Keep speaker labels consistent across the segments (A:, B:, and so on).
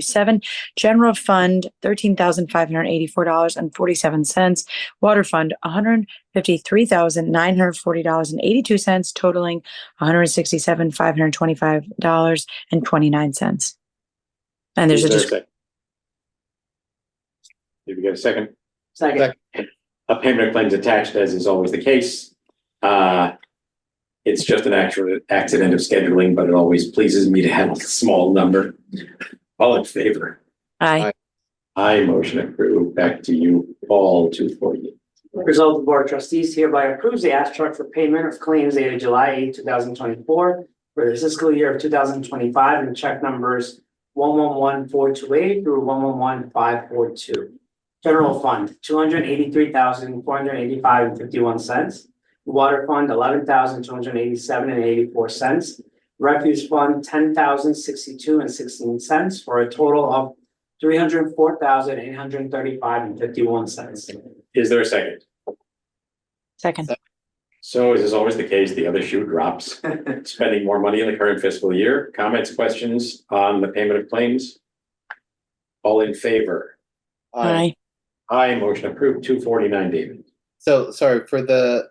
A: seven. General Fund, thirteen thousand five hundred eighty-four dollars and forty-seven cents. Water Fund, one hundred fifty-three thousand nine hundred forty dollars and eighty-two cents totaling one hundred sixty-seven five hundred twenty-five dollars and twenty-nine cents. And there's a,
B: Is there
A: dis-
B: second? Did we get a second?
C: Second.
B: A payment of claims attached, as is always the case. Uh, it's just an actual accident of scheduling, but it always pleases me to have a small number. All in favor?
A: aye,
B: I motion approve. Back to you, Paul, two forty.
C: Result of the Board of Trustees hereby approves the abstract for payment of claims dated July 8, thousand twenty-four for the fiscal year of two thousand twenty-five and check numbers one one one four two eight through one one one five four two. General Fund, two hundred eighty-three thousand, four hundred eighty-five and fifty-one cents. Water Fund, eleven thousand, two hundred eighty-seven and eighty-four cents. Refuge Fund, ten thousand, sixty-two and sixteen cents for a total of three hundred four thousand, eight hundred thirty-five and fifty-one cents.
B: Is there a second?
A: second,
B: So as is always the case, the other shoe drops. Spending more money in the current fiscal year. Comments, questions on the payment of claims? All in favor?
A: aye,
B: I motion approved two forty-nine, David.
D: So sorry for the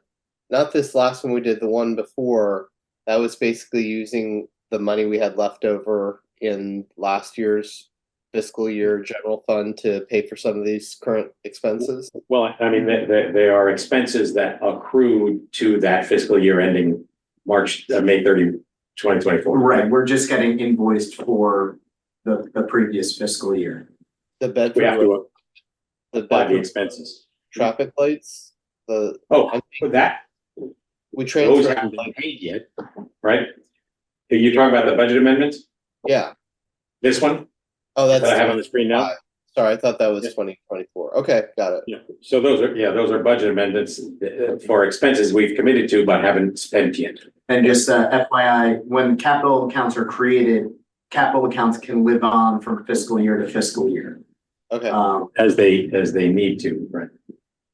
D: not this last one we did, the one before, that was basically using the money we had left over in last year's fiscal year general fund to pay for some of these current expenses.
B: Well, I mean, they, they, they are expenses that accrued to that fiscal year ending March, uh, May 30, 2024.
E: Right, we're just getting invoiced for the, the previous fiscal year.
D: The
B: We have
D: bedroom,
B: to uh,
D: the
B: apply the
D: bedroom
B: expenses.
D: traffic lights, the,
B: Oh, for that,
D: we
B: those
D: transferred,
B: haven't been paid yet, right? Are you talking about the budget amendments?
D: yeah.
B: This one
D: Oh,
B: that I have on
D: that's,
B: the screen now?
D: sorry, I thought that was
B: Yeah.
D: twenty twenty-four. Okay, got it.
B: Yeah, so those are, yeah, those are budget amendments uh, for expenses we've committed to but haven't spent yet.
E: And just uh, FYI, when capital accounts are created, capital accounts can live on from fiscal year to fiscal year.
D: Okay.
E: Um,
B: as they, as they need to, right?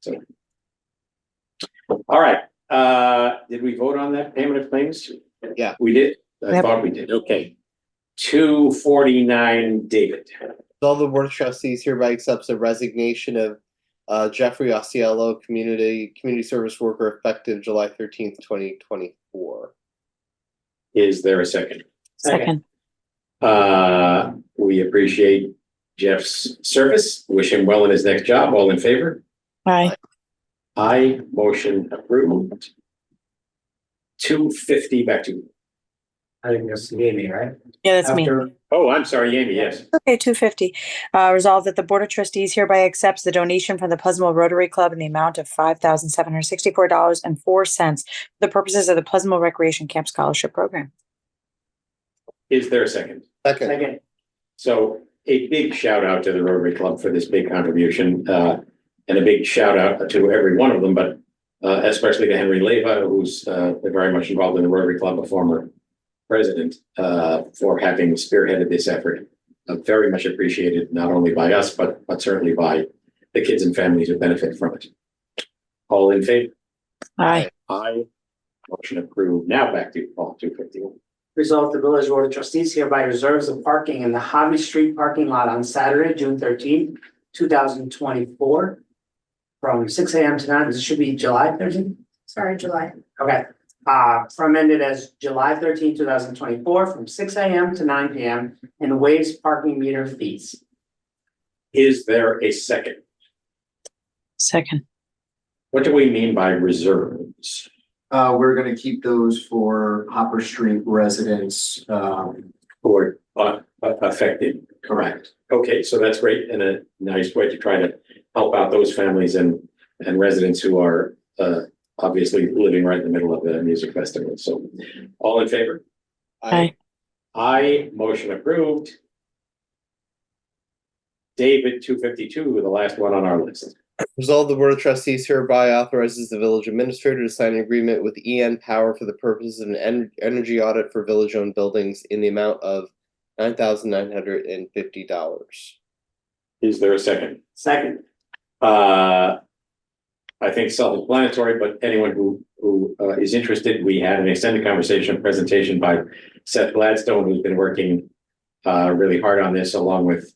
B: So. All right, uh, did we vote on that payment of claims?
D: Yeah.
B: We did, I
A: Yep.
B: thought we did, okay. Two forty-nine, David,
D: All the board of trustees hereby accepts the resignation of uh, Jeffrey Osceola, community community service worker, effective July thirteenth, twenty twenty four.
B: is there a second?
A: second,
B: Uh, we appreciate Jeff's service, wish him well in his next job, all in favor?
A: aye,
B: I motion approved. Two fifty, back to, you.
C: I think that's the game, right?
A: yeah, that's me.
C: After-
B: oh, I'm sorry, Amy, yes,
A: Okay, two fifty. Uh, resolved that the Board of Trustees hereby accepts the donation from the Pleasantville Rotary Club in the amount of five thousand seven hundred sixty-four dollars and four cents for the purposes of the Pleasantville Recreation Camp Scholarship Program.
B: is there a second?
D: Second,
C: Second,
B: So a big shout out to the Rotary Club for this big contribution, uh, and a big shout out to every one of them, but uh, especially to Henry Leva, who's uh, very much involved in the Rotary Club, a former president, uh, for having spearheaded this effort. Uh, Very much appreciated, not only by us, but, but certainly by the kids and families who benefit from it. All in favor?
A: Aye,
B: Aye. Motion approved. Now back to you, Paul, two fifty-one.
C: resolve the village board of trustees hereby reserves the parking in the Hobby Street parking lot on Saturday, June thirteenth, two thousand twenty-four. From six AM to nine, this should be July thirteenth?
F: Sorry, July.
C: Okay, uh, from ended as July 13, thousand twenty-four, from six AM to nine PM, and waives parking meter fees.
B: Is there a second?
A: second,
B: What do we mean by reserves?
E: uh, we're gonna keep those for Hopper Street residents, um,
B: Or uh, uh, affected, correct? Okay, so that's great and a nice way to try to help out those families and, and residents who are uh, obviously living right in the middle of the music festival. So all in favor?
D: I,
B: I motion approved. David, two fifty-two, the last one on our list.
D: resolve the board of trustees hereby authorizes the village administrator to sign an agreement with EN Power for the purposes of an en- energy audit for village owned buildings in the amount of nine thousand nine hundred and fifty dollars.
B: Is there a second?
C: Second,
B: Uh, I think self-explanatory, but anyone who, who uh, is interested, we had an extended conversation, presentation by Seth Gladstone, who's been working uh, really hard on this along with